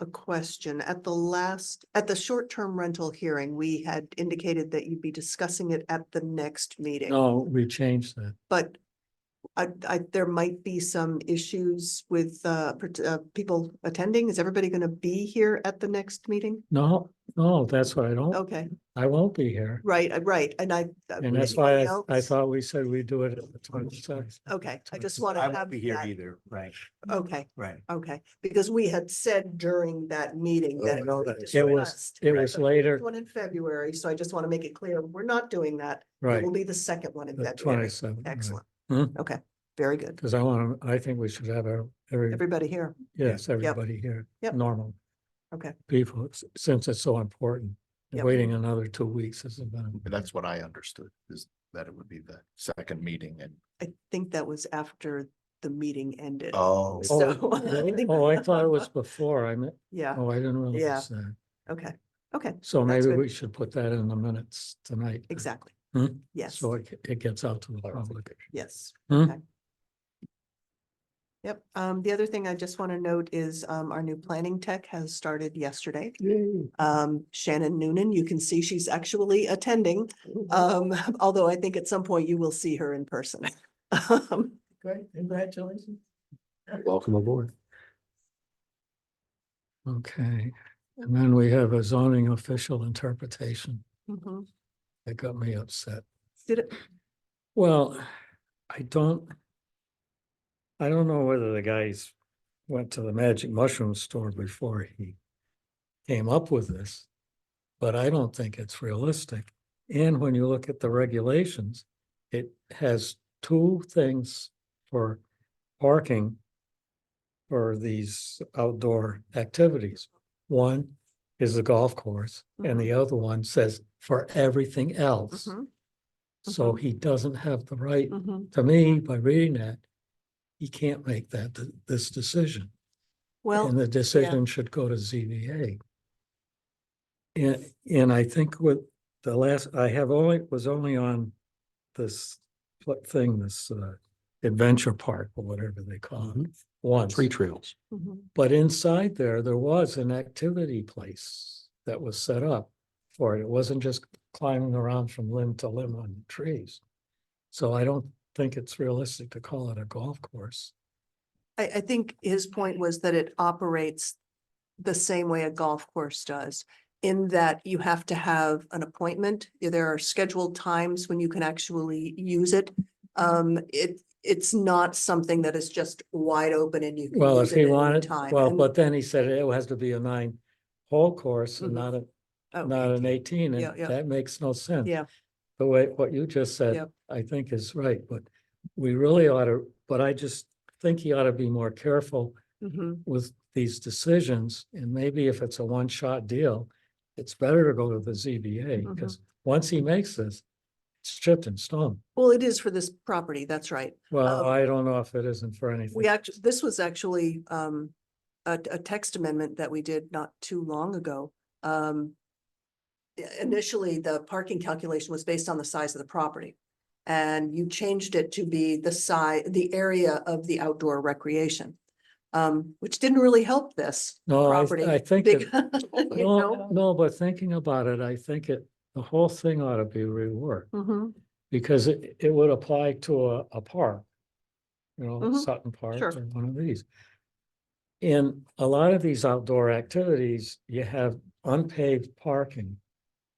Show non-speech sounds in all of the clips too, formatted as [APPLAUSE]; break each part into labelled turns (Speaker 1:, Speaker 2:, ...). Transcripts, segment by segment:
Speaker 1: a question. At the last, at the short-term rental hearing, we had indicated that you'd be discussing it at the next meeting,
Speaker 2: No, we changed that.
Speaker 1: but I, I, there might be some issues with, uh, part- uh, people attending. Is everybody going to be here at the next meeting?
Speaker 2: No, no, that's why I don't,
Speaker 1: Okay,
Speaker 2: I won't be here.
Speaker 1: right, uh, right, and I. uh,
Speaker 2: And that's why I,
Speaker 1: anybody
Speaker 2: I
Speaker 1: else? Oh,
Speaker 2: thought we said we'd do it at the twenty-sixth.
Speaker 1: Okay, I just want to
Speaker 3: I
Speaker 1: have.
Speaker 3: won't be here
Speaker 1: that-
Speaker 3: either, right,
Speaker 1: Okay,
Speaker 3: right.
Speaker 1: okay, because we had said during that meeting
Speaker 3: Oh,
Speaker 1: that.
Speaker 3: no,
Speaker 1: was
Speaker 3: that is
Speaker 2: It
Speaker 3: right.
Speaker 2: was,
Speaker 1: discussed.
Speaker 2: it was later,
Speaker 1: One in February, so I just want to make it clear, we're not doing that. It
Speaker 2: right,
Speaker 1: will be the second one in
Speaker 2: the
Speaker 1: February.
Speaker 2: twenty-seventh.
Speaker 1: Excellent.
Speaker 2: Hmm.
Speaker 1: Okay, very good.
Speaker 2: Because I want, to. I think we should have our, every,
Speaker 1: Everybody here.
Speaker 2: yes, everybody here,
Speaker 1: Yep.
Speaker 2: normal.
Speaker 1: Okay.
Speaker 2: People, s- since it's so important,
Speaker 1: Yep.
Speaker 2: waiting another two weeks isn't gonna.
Speaker 4: That's what I understood, is that it would be the second meeting and,
Speaker 1: I think that was after the meeting ended.
Speaker 4: oh,
Speaker 1: So- [LAUGHS]
Speaker 2: Oh, really? Oh, I thought it was before, I meant,
Speaker 1: Yeah,
Speaker 2: oh, I didn't
Speaker 1: Yeah.
Speaker 2: realize that.
Speaker 1: okay, okay,
Speaker 2: So
Speaker 1: That's
Speaker 2: maybe
Speaker 1: good.
Speaker 2: we should put that in the minutes tonight.
Speaker 1: exactly.
Speaker 2: Hmm?
Speaker 1: Yes,
Speaker 2: So it, it gets out to the public.
Speaker 4: clarification.
Speaker 1: yes.
Speaker 2: Hmm?
Speaker 1: Okay. Yep, um, the other thing I just want to note is, um, our new planning tech has started yesterday. Um, Shannon Noonan, you can see she's actually attending, um, [LAUGHS] although I think at some point you will see her in person. [LAUGHS] Um,
Speaker 3: Great, congratulations.
Speaker 4: Welcome aboard.
Speaker 2: Okay, and then we have a zoning official interpretation.
Speaker 1: mhm.
Speaker 2: That got me upset.
Speaker 1: Did it,
Speaker 2: Well, I don't. I don't know whether the guys went to the magic mushroom store before he came up with this. But I don't think it's realistic. And when you look at the regulations, it has two things for parking. For these outdoor activities. One is the golf course and
Speaker 1: Mhm.
Speaker 2: the other one says for everything else.
Speaker 1: Mhm,
Speaker 2: So he doesn't have the right,
Speaker 1: mhm.
Speaker 2: to me, by reading that, he can't make that, th- this decision.
Speaker 1: well,
Speaker 2: And the decision should go to ZBA. And, and I think with the last, I have only, was only on this pl- thing, this uh, adventure park or whatever they call it, once.
Speaker 3: Three trails.
Speaker 1: mhm,
Speaker 2: But inside there, there was an activity place that was set up for it. It wasn't just climbing around from limb to limb on trees. So I don't think it's realistic to call it a golf course.
Speaker 1: I, I think his point was that it operates the same way a golf course does, in that you have to have an appointment. There are scheduled times when you can actually use it. Um, it, it's not something that is just wide open and you. can
Speaker 2: Well,
Speaker 1: use
Speaker 2: if he
Speaker 1: it at any
Speaker 2: wanted,
Speaker 1: time.
Speaker 2: well,
Speaker 1: And-
Speaker 2: but then he said it has to be a nine hole course
Speaker 1: Mhm.
Speaker 2: and not a,
Speaker 1: oh,
Speaker 2: not an eighteen,
Speaker 1: Yeah, yeah.
Speaker 2: and that makes no sense.
Speaker 1: Yeah.
Speaker 2: The way, what you just
Speaker 1: Yeah.
Speaker 2: said, I think is right, but we really ought to, but I just think he ought to be more careful
Speaker 1: mhm.
Speaker 2: with these decisions, and maybe if it's a one-shot deal, it's better to go to
Speaker 1: Mm-hmm.
Speaker 2: the ZBA, because once he makes this, it's stripped in stone.
Speaker 1: Well, it is for this property, that's right.
Speaker 2: Well,
Speaker 1: Um,
Speaker 2: I don't know if it isn't for anything.
Speaker 1: We actually, this was actually um a a text amendment that we did not too long ago. Um. i- Initially, the parking calculation was based on the size of the property. And you changed it to be the size, the area of the outdoor recreation. Um, which didn't really help this
Speaker 2: No, I,
Speaker 1: property.
Speaker 2: I think,
Speaker 1: big- [LAUGHS]
Speaker 2: it-
Speaker 1: you know?
Speaker 2: no, no, but thinking about it, I think it, the whole thing ought to be reworked,
Speaker 1: Mhm,
Speaker 2: because it, it would apply to a, a park. You know,
Speaker 1: Mhm,
Speaker 2: Sutton Park
Speaker 1: sure.
Speaker 2: or one of these. In a lot of these outdoor activities, you have unpaved parking.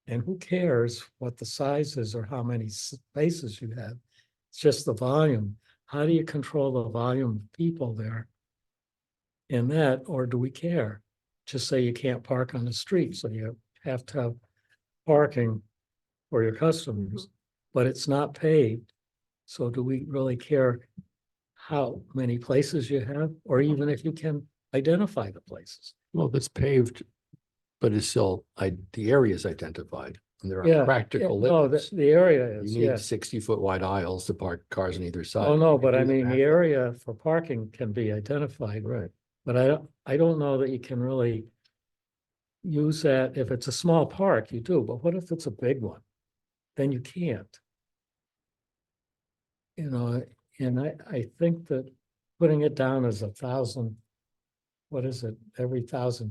Speaker 2: And who cares what the size is or how many s- spaces you have? It's just the volume. How do you control the volume of people there? In that, or do we care? Just say you can't park on the street, so you have to have parking for your customers, but it's not paved. So do we really care how many places you have, or even if you can identify the places?
Speaker 3: Well, that's paved, but it's still, I, the area is identified and there
Speaker 2: Yeah,
Speaker 3: are
Speaker 2: Yeah,
Speaker 3: practical
Speaker 2: No, the,
Speaker 3: limits.
Speaker 2: the area is,
Speaker 3: You need
Speaker 2: yes.
Speaker 3: sixty foot wide aisles to park cars on either side.
Speaker 2: Oh, no, but
Speaker 3: do
Speaker 2: I
Speaker 3: the
Speaker 2: mean,
Speaker 3: math.
Speaker 2: the area for parking can be identified,
Speaker 3: Right.
Speaker 2: but I don't, I don't know that you can really use that. If it's a small park, you do, but what if it's a big one? Then you can't. You know, and I, I think that putting it down as a thousand, what is it, every thousand